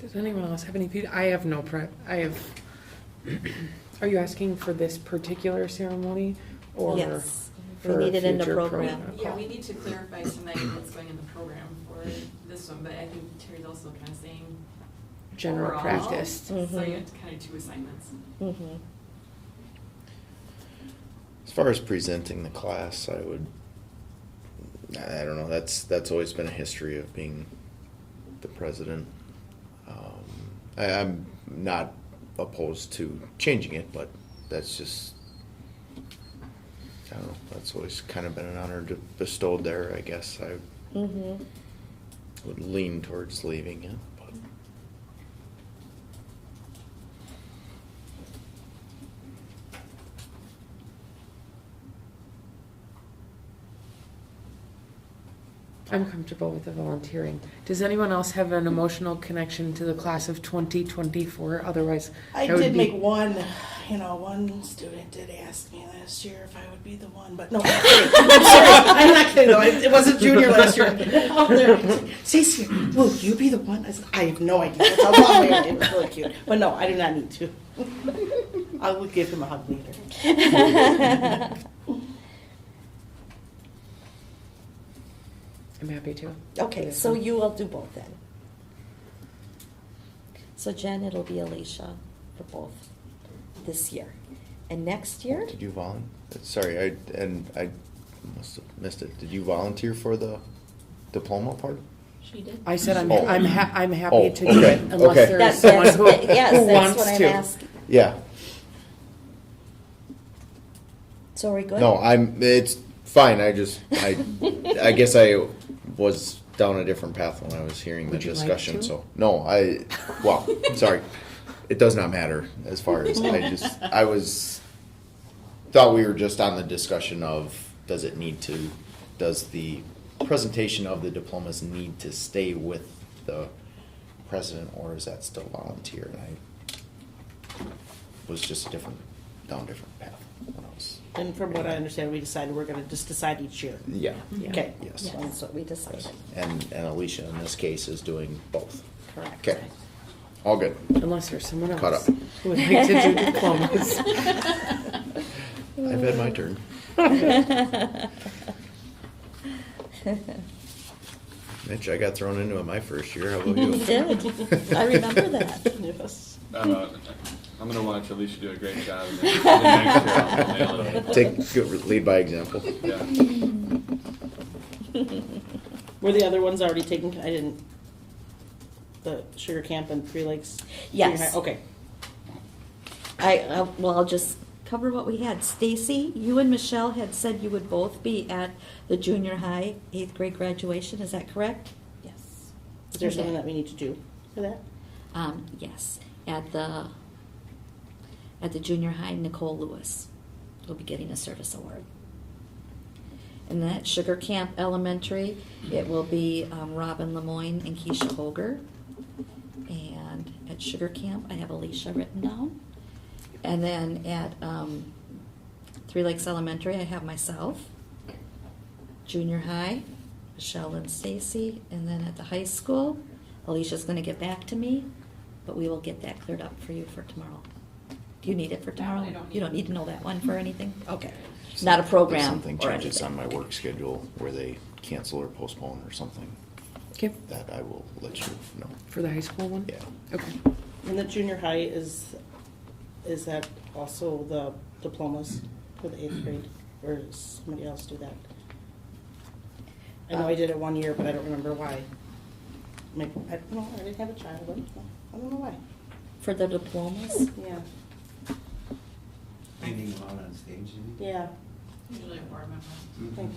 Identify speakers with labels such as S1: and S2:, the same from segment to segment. S1: Does anyone else have any, pe- I have no prep, I have, are you asking for this particular ceremony? or
S2: Yes, we
S1: for
S2: need it in the
S1: future
S2: program.
S3: Yeah, we need to clarify tonight what's going in the program for this one, but I think Terry's also kind of saying.
S1: General
S3: overall,
S1: practice. Mm-hmm. Mm.
S3: So you have
S2: Mhm.
S3: kind of two assignments.
S2: Mhm.
S4: As far as presenting the class, I would, I don't know, that's, that's always been a history of being the president. Um, I, I'm not opposed to changing it, but that's just, I don't know, that's always kind of been an honor to- bestowed there, I guess. I
S2: Mhm.
S4: would lean towards leaving it, but
S1: I'm comfortable with the volunteering. Does anyone else have an emotional connection to the class of 2024? Otherwise,
S5: I
S1: that would
S5: did
S1: be-
S5: make one, you know, one student did ask me last year if I would be the one, but no, I'm kidding. I'm sorry. I'm not kidding though. It it wasn't junior last year. Out there, Stacy, will you be the one? I said, I have no idea. That's how long we are. It was really cute. But no, I do not need to. I will give him a hug later.
S2: Mm-hmm.
S1: I'm happy to.
S2: Okay,
S1: This
S2: so
S1: one.
S2: you will do both then. So Jen, it'll be Alicia for both this year. And next year,
S4: did you volun, sorry, I, and I must have missed it. Did you volunteer for the diploma part?
S3: She did.
S1: I said I'm,
S4: Oh.
S1: I'm, ha- I'm happy
S4: Oh,
S1: to do it
S4: okay,
S1: unless
S4: okay.
S1: there is
S2: that's,
S1: someone
S2: that's,
S1: who,
S2: yes,
S1: who
S2: that's
S1: wants
S2: what I'm
S1: to.
S2: asking.
S4: Yeah,
S2: So are we good?
S4: No, I'm, it's fine, I just, I, I guess I was down a different path when I was hearing the
S1: Would you like
S4: discussion,
S1: to?
S4: so. No, I, well, sorry, it does not matter as far as, I just, I was, thought we were just on the discussion of, does it need to, does the presentation of the diplomas need to stay with the president, or is that still volunteer? And I was just different, down a different path when I was.
S5: And from what I understand, we decided we're gonna just decide each year.
S4: Yeah.
S1: Yeah.
S5: Okay.
S4: Yes.
S2: Yeah, that's what we decided.
S4: And, and Alicia in this case is doing both.
S2: Correct.
S4: Okay. All good.
S1: Unless there's someone
S4: Caught
S1: else
S4: up.
S1: who would like to do diplomas.
S4: I've had my turn. Mitch, I got thrown into it my first year. How about you?
S2: You did. I remember that.
S5: Yes.
S6: Uh, I'm gonna watch Alicia do a great job. and then the next year I'll nail it.
S4: Take, good- lead by example.
S6: Yeah.
S5: Were the other ones already taken? I didn't. The Sugar Camp and Three Lakes? Junior
S2: Yes.
S5: High? Okay.
S2: I, I- well, I'll just cover what we had. Stacy, you and Michelle had said you would both be at the junior high eighth grade graduation, is that correct?
S3: Yes.
S5: Is there something
S2: Okay.
S5: that we need to do for that?
S2: Um, yes, at the, at the junior high, Nicole Lewis will be getting a service award. And then at Sugar Camp Elementary, it will be um, Robin Lemoyne and Keisha Holger. And at Sugar Camp, I have Alicia written down. And then at um, Three Lakes Elementary, I have myself. Junior high, Michelle and Stacy. And then at the high school, Alicia's going to get back to me, but we will get that cleared up for you for tomorrow. Do you need it for
S3: No, I
S2: tomorrow?
S3: don't
S2: You don't
S3: need
S2: need
S3: it.
S2: to know that one for anything? Okay. Not a program
S4: Something
S2: or
S4: changes
S2: anything.
S4: on my work schedule where they cancel or postpone or something,
S1: Okay,
S4: that I will let you know.
S1: for the high school one?
S4: Yeah.
S1: Okay.
S5: And the junior high is, is that also the diplomas for the eighth grade, or does somebody else do that? I know I did it one year, but I don't remember why. Maybe, I don't know, I didn't have a child, I don't know, I don't know why,
S2: Um, For the diplomas?
S5: yeah,
S7: Anything out on stage, you mean?
S5: yeah,
S3: Usually a board member.
S5: I think,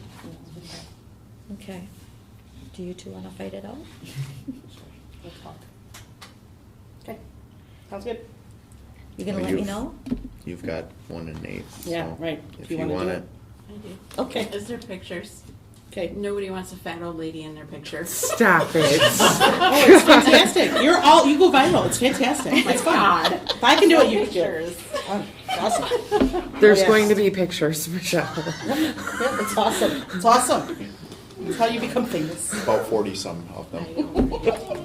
S5: yeah,
S2: Okay. Do you two want to fight it out?
S5: we'll talk. Okay, sounds good.
S2: You gonna
S4: Well,
S2: let me
S4: you've-
S2: know?
S4: You've got one and eight.
S5: Yeah,
S4: so
S5: right.
S4: If
S5: Do you
S4: you
S5: wanna
S4: want
S5: do
S4: it,
S3: I do.
S2: Okay.
S3: Is there pictures?
S5: Okay.
S3: Nobody wants a fat old lady in their picture.
S1: Stop it.
S5: Oh, it's fantastic, you're all, you go viral, it's fantastic,
S3: My
S5: it's fun.
S3: God.
S5: If I can do it, you can do it.
S3: Pictures.
S5: Awesome.
S1: There's
S5: Yes.
S1: going to be pictures, Michelle.
S5: Yeah, It's awesome. It's awesome. It's how you become famous.
S4: about forty some of them.
S3: I don't.